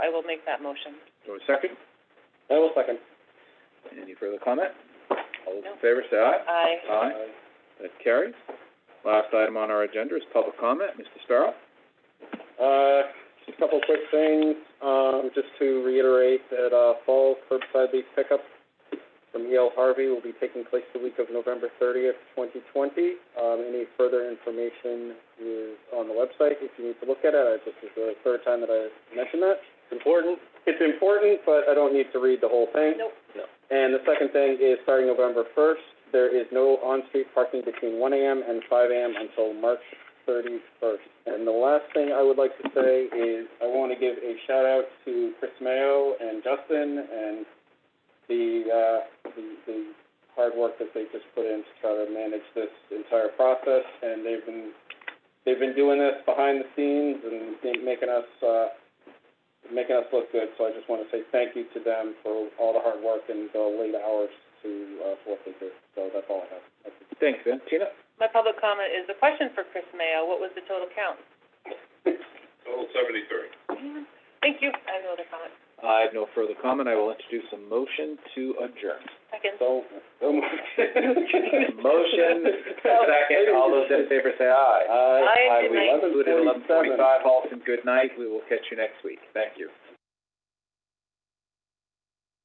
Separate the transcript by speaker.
Speaker 1: I will make that motion.
Speaker 2: Do I have a second?
Speaker 3: I will second.
Speaker 2: Any further comment? All those
Speaker 1: No.
Speaker 2: in favor, say aye.
Speaker 1: Aye.
Speaker 2: That carries. Last item on our agenda is public comment. Mr. Sparrow?
Speaker 3: Uh, just a couple quick things, um, just to reiterate that, uh, fall curbside leaf pickup from E. L. Harvey will be taking place the week of November thirtieth, twenty twenty. Um, any further information is on the website if you need to look at it. I This is the third time that I mentioned that. It's important. It's important, but I don't need to read the whole thing.
Speaker 1: Nope.
Speaker 3: And the second thing is, starting November first, there is no on-street parking between one AM and five AM until March thirty-first. And the last thing I would like to say is, I want to give a shout-out to Chris Mayo and Justin and the, uh, the, the hard work that they just put in to try to manage this entire process. And they've been, they've been doing this behind the scenes and ma- making us, uh, making us look good, so I just want to say thank you to them for all the hard work and the late hours to, uh, for what they do. So that's all I have. That's it.
Speaker 2: Thanks, Vin. Tina?
Speaker 1: My public comment is a question for Chris Mayo. What was the total count?
Speaker 3: Total seventy-three.
Speaker 1: Thank you. I have no other comment.
Speaker 2: I have no further comment. I will introduce a motion to adjourn.
Speaker 1: Second.
Speaker 3: So, so much.
Speaker 2: Motion, second. All those in favor, say aye.
Speaker 3: Aye.
Speaker 1: Aye, good
Speaker 2: We
Speaker 1: night.
Speaker 2: concluded at eleven forty-five. Halton, good night. We will catch you next week. Thank you.